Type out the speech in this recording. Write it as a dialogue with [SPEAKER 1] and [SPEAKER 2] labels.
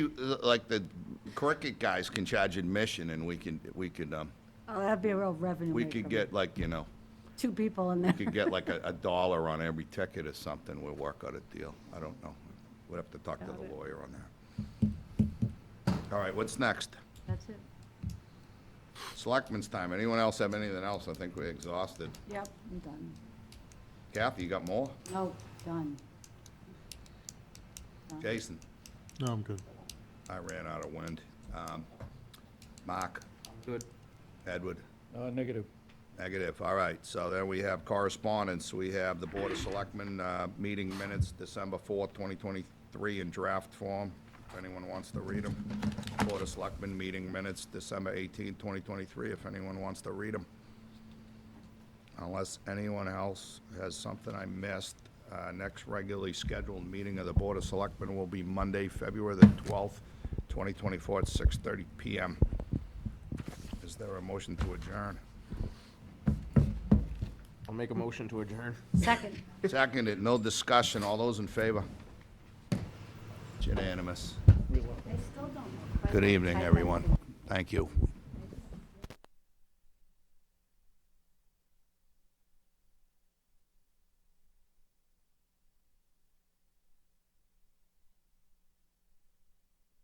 [SPEAKER 1] like the cricket guys can charge admission and we can, we could, um,
[SPEAKER 2] Oh, that'd be a real revenue
[SPEAKER 1] we
[SPEAKER 2] maker,
[SPEAKER 1] could
[SPEAKER 2] but
[SPEAKER 1] get like, you know,
[SPEAKER 2] Two people in there.
[SPEAKER 1] could get like a, a dollar on every ticket or something. We'll work out a deal. I don't know. We'd have to talk to
[SPEAKER 2] Got
[SPEAKER 1] the
[SPEAKER 2] it.
[SPEAKER 1] lawyer on that. All right, what's next?
[SPEAKER 2] That's it.
[SPEAKER 1] Selectmen's time. Anyone else have anything else? I think we're exhausted.
[SPEAKER 2] Yep, I'm done.
[SPEAKER 1] Kathy, you got more?
[SPEAKER 2] No, done.
[SPEAKER 1] Jason?
[SPEAKER 3] No, I'm good.
[SPEAKER 1] I ran out of wind. Um, Mark?
[SPEAKER 4] Good.
[SPEAKER 1] Edward?
[SPEAKER 4] Uh, negative.
[SPEAKER 1] Negative, all right. So then we have correspondence. We have the Board of Selectmen uh, meeting minutes, December 4th, 2023, in draft form, if anyone wants to read them. Board of Selectmen meeting minutes, December 18th, 2023, if anyone wants to read them. Unless anyone else has something I missed, uh, next regularly scheduled meeting of the Board of Selectmen will be Monday, February the 12th, 2024, at 6:30 PM. Is there a motion to adjourn?
[SPEAKER 4] I'll make a motion to adjourn.
[SPEAKER 2] Second.
[SPEAKER 1] Seconded, no discussion, all those in favor? It's unanimous.
[SPEAKER 2] I still don't know.
[SPEAKER 1] Good evening, everyone. Thank you.